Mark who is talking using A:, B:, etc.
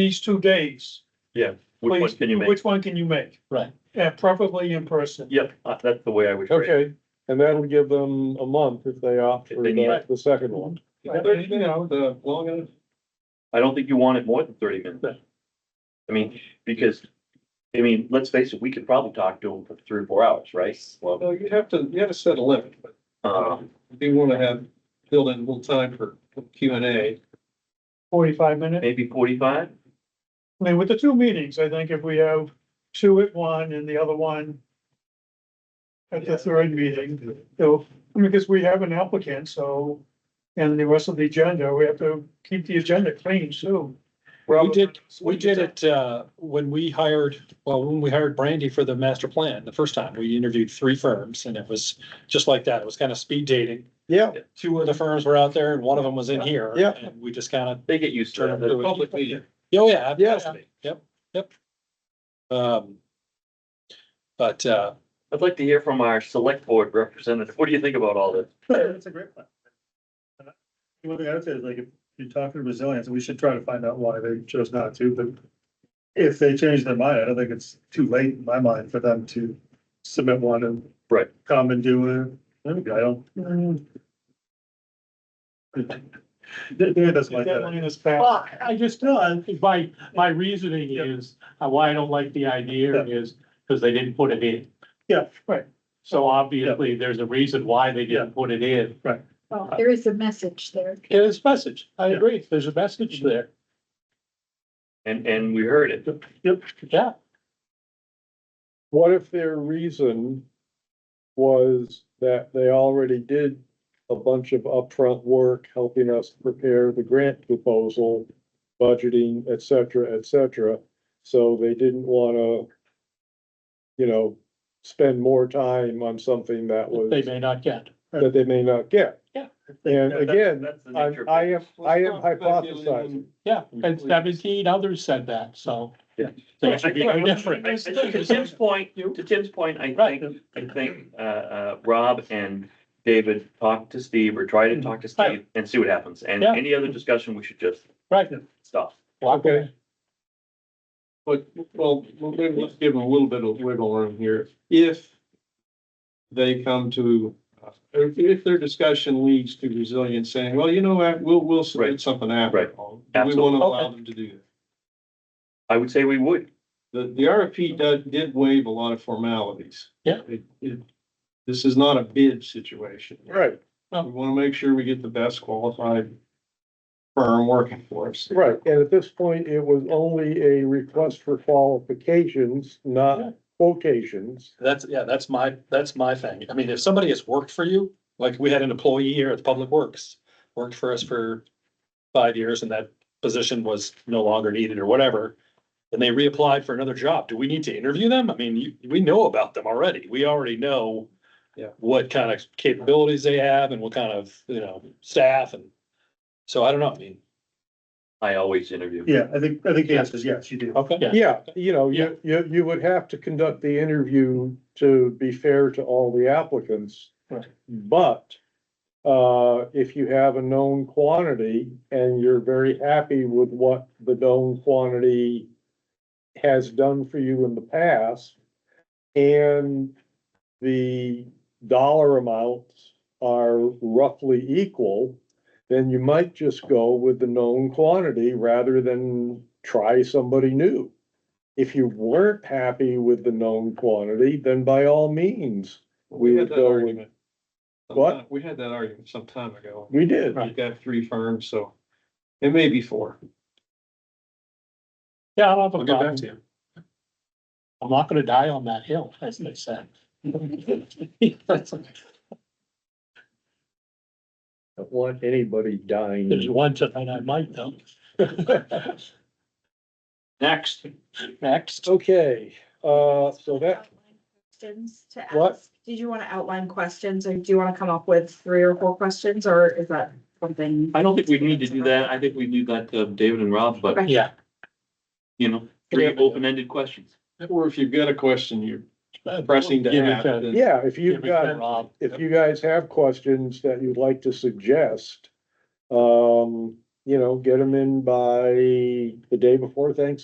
A: these two days.
B: Yeah, which one
A: please,
B: can you make?
A: Which one can you make?
C: Right.
A: And preferably in person.
B: Yep, uh, that's the way I would. phrase it.
D: Okay, and that'll give them a month if they opt
B: If
D: for
B: they need
D: the, the second one.
A: Right.
C: You know, the long and
B: I don't think you want it more than thirty minutes. I mean, because, I mean, let's face it, we could probably talk to them for three or four hours, right? Well,
C: No, you'd have to, you have to set a limit, but
B: um,
C: if you wanna have, build in a little time for Q and A.
A: Forty-five minutes.
B: maybe forty-five?
A: I mean, with the two meetings, I think if we have two at one and the other one at the third meeting, so, I mean, because we have an applicant, so, and the rest of the agenda, we have to keep the agenda clean, too.
D: Well,
E: We did, we did it, uh, when we hired, well, when we hired Brandy for the master plan, the first time, we interviewed three firms and it was just like that. It was kind of speed dating.
D: Yeah,
E: Two of the firms were out there and one of them was in here.
D: Yeah.
E: And we just kind of,
B: They get used to
E: Turn them
B: it.
E: to
C: Public meeting.
E: oh, yeah.
D: Yes.
E: Yep, yep. Um, but, uh,
B: I'd like to hear from our select board representative. What do you think about all this?
F: That's a great plan. Uh, One thing I would say is like, if you're talking resilience, we should try to find out why they chose not to, but if they change their mind, I don't think it's too late in my mind for them to submit one and
B: Right.
F: come and do it. There we go. I don't. Dan- Dan doesn't like that.
A: Deadline is passed.
G: Well, I just, uh, my, my reasoning is, uh, why I don't like the idea is because they didn't put it in.
F: Yeah,
A: right.
G: So obviously, there's a reason why they didn't put it in.
H: Well, there is a message there.
G: It is message. I agree. There's a message there.
B: And, and we heard it.
G: Yeah.
D: what if their reason was that they already did a bunch of upfront work helping us prepare the grant proposal, budgeting, et cetera, et cetera, so they didn't wanna, you know, spend more time on something that
G: They
D: was,
G: may not get.
D: that they may not get.
G: Yeah.
D: And
B: That-
D: again,
B: That's the
D: I,
B: nature
D: I
B: of it.
D: am, I am hypothesizing.
G: Yeah, and seventeen others said that, so.
B: Yeah.
G: Things would be no
B: I
G: different.
B: think To Tim's point, to Tim's point, I
G: Right.
B: think, I think, uh, uh, Rob and David talk to Steve or try to talk to Steve
G: Right.
B: and see what happens. And
G: Yeah.
B: any other discussion, we should just
G: Right.
B: stop.
G: Walk away.
C: But, well, maybe let's give them a little bit of wiggle room here. If they come to, uh, if, if their discussion leads to resilience saying, well, you know what, we'll, we'll
B: Right.
C: submit something after.
B: Right.
C: all." Do We
B: Absolutely.
C: wanna allow
G: Okay.
C: them to do that.
B: I would say we would.
C: The, the RFP did, did waive a lot of formalities.
G: Yeah.
C: It, it, this is not a bid situation.
D: Right,
C: We wanna make sure we get the best qualified firm working for us.
D: right. And at this point, it was only a request for qualifications,
G: Yeah.
D: not quotations.
E: that's, yeah, that's my, that's my thing. I mean, if somebody has worked for you, like we had an employee here at Public Works, worked for us for five years and that position was no longer needed or whatever, and they reapplied for another job, do we need to interview them? I mean, you, we know about them already. We already know
C: Yeah.
E: what kind of capabilities they have and what kind of, you know, staff and, so I don't know, I mean,
B: I always interview.
F: Yeah, I think, I think the answer is yes, you do.
E: okay.
D: Yeah, you know, you, you, you would have to conduct the interview to be fair to all the applicants.
G: Right.
D: But, uh, if you have a known quantity and you're very happy with what the known quantity has done for you in the past, and the dollar amounts are roughly equal, then you might just go with the known quantity rather than try somebody new. If you weren't happy with the known quantity, then by all means,
C: We had that
D: We go with-
C: argument.
D: What?
C: sometime- We had that argument some time ago.
D: we did.
C: We've got three firms, so it may be four.
G: Yeah, I don't have
E: I'll
G: a
E: get back
G: problem.
E: to you.
G: I'm not gonna die on that hill, as they said.
D: Don't want anybody
G: There's
D: dying.
G: one tonight I might though.
B: Next.
G: Next.
D: Okay, uh, so that,
H: Questions to ask.
D: What?
H: Did you want to outline questions or do you want to come up with three or four questions or is that something?
B: I don't think we need to do that. I think we leave that to David and Rob, but
H: Okay.
G: Yeah,
B: you know, three open-ended questions.
C: Or if you've got a question, you're pressing to
G: Uh, Give me
C: ask.
G: that.
C: then-
D: yeah, if
G: Give
D: you've
G: me
D: got
G: that, Rob.
D: if you guys have questions that you'd like to suggest, um, you know, get them in by the day before Thanksgiving.